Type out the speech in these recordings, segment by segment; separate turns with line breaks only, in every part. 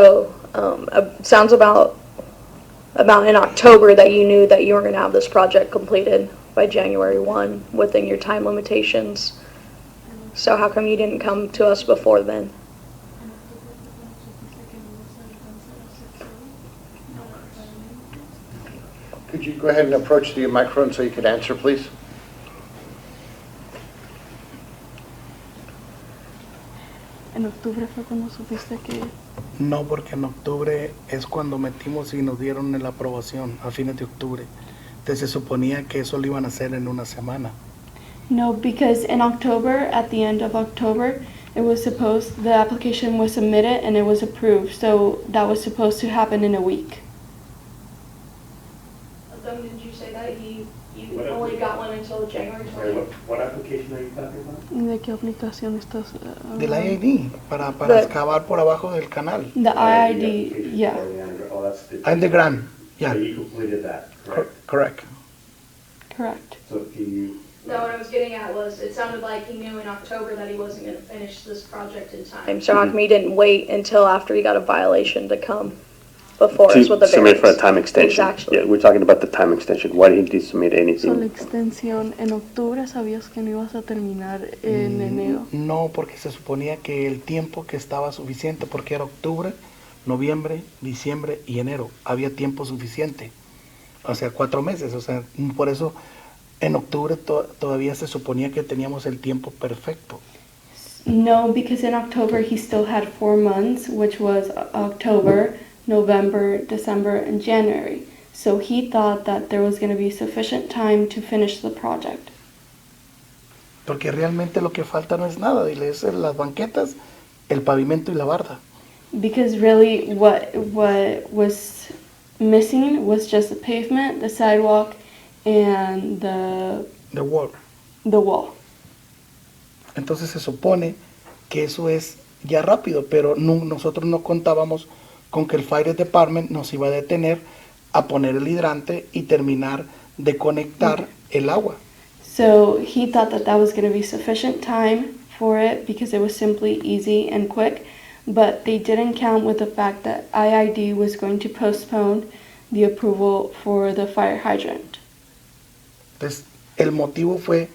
So, um, uh, sounds about, about in October that you knew that you were gonna have this project completed by January one, within your time limitations. So how come you didn't come to us before then?
Could you go ahead and approach the microphone so you could answer, please?
En octubre fue cuando supiste que...
No, porque en octubre es cuando metimos y nos dieron la aprobación, a fines de octubre. Entonces se suponía que eso lo iban a hacer en una semana.
No, because in October, at the end of October, it was supposed, the application was submitted and it was approved. So that was supposed to happen in a week.
Then did you say that you,
What if only we- got
one until January
Sorry, what, what application are you talking about?
¿De qué aplicación estás
Del IAD, para, para
But-
excavar por abajo del canal.
The IID,
application for
yeah,
the under- Oh, that's the.
Underground,
So
yeah,
you completed that,
cor-
correct?
correct.
correct.
So can you,
No, what I was getting at was, it sounded like he knew in October that he wasn't gonna finish this project in time. So how come you didn't wait until after you got a violation to come before us
To
with the variance?
submit for a time extension.
Exactly.
Yeah, we're talking about the time extension. Why didn't you submit
So la
anything?
extensión, en octubre sabías que no ibas a terminar en enero.
No, porque se suponía que el tiempo que estaba suficiente, porque era octubre, noviembre, diciembre y enero, había tiempo suficiente. O sea, cuatro meses. O sea, por eso en octubre to- todavía se suponía que teníamos el tiempo perfecto.
No, because in October he still had four months, which was O- October, November, December, and January. So he thought that there was going to be sufficient time to finish the project.
Porque realmente lo que falta no es nada, dile, es las banquetas, el pavimento y la barda.
Because really, what what was missing was just the pavement, the sidewalk, and the
The wall.
the wall.
Entonces se supone que eso es ya rápido, pero no- nosotros no contábamos con que el Fire Department nos iba a detener a poner el hidrante y terminar de conectar el agua.
So he thought that that was going to be sufficient time for it because it was simply easy and quick, but they didn't count with the fact that IID was going to postpone the approval for the fire hydrant.
Entonces, el motivo fue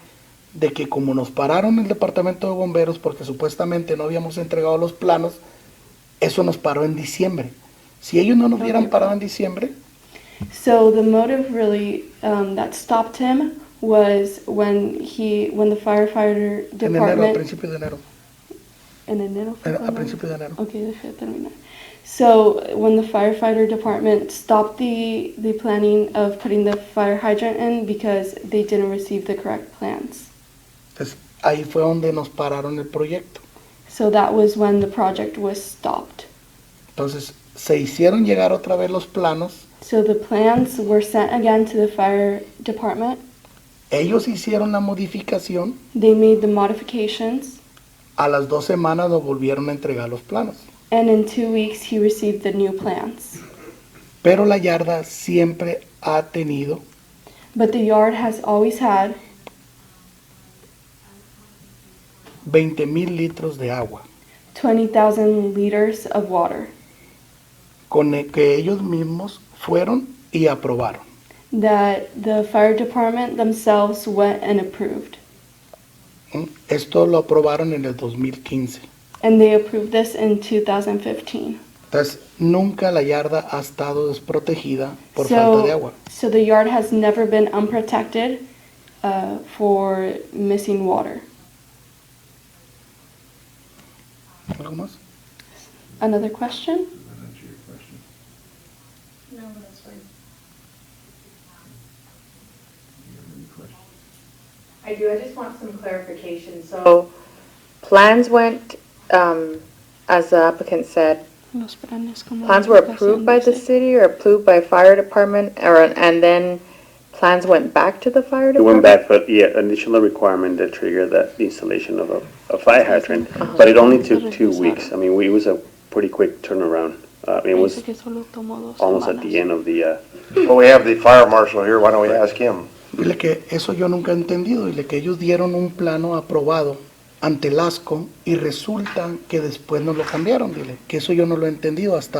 de que como nos pararon el departamento de bomberos porque supuestamente no habíamos entregado los planos, eso nos paró en diciembre. Si ellos no nos hubieran parado en diciembre,
So the motive really um, that stopped him was when he when the firefighter
en enero, a
department
principios de enero,
en enero fue
en- a
cuando-
principios de enero.
Okay, deja de terminar. So when the firefighter department stopped the, the planning of putting the fire hydrant in because they didn't receive the correct plans.
Entonces, ahí fue donde nos pararon el proyecto.
So that was when the project was stopped.
Entonces, se hicieron llegar otra vez los planos,
So the plans were sent again to the fire department.
ellos hicieron la modificación,
They made the modifications
a las dos semanas nos volvieron a entregar los planos.
and in two weeks he received the new plans.
Pero la yarda siempre ha tenido
But the yard has always had
20 mil litros de agua.
20,000 liters of water
con el que ellos mismos fueron y aprobaron.
that the fire department themselves went and approved.
¿Mm? Esto lo aprobaron en el 2015.
And they approved this in 2015.
Entonces, nunca la yarda ha estado desprotegida por
So-
falta de agua.
So the yard has never been unprotected uh, for missing water.
¿Algo más?
Another question?
No, but that's fine.
I do, I just want some clarification, so. Plans went, um, as the applicant said, plans were approved by the city or approved by fire department, or, and then plans went back to the fire
uh,
It went
department?
back, but yeah, additional requirement that triggered that the installation of a, a fire hydrant.
Uh-huh.
But it only took two weeks. I mean, we, it was a pretty quick turnaround. Uh, it was almost at the end of the, uh,
Well, we have the fire marshal here, why don't we ask him?
Dile que eso yo nunca he entendido, dile que ellos dieron un plano aprobado ante el ASCO y resulta que después nos lo cambiaron, dile que eso yo no lo he entendido hasta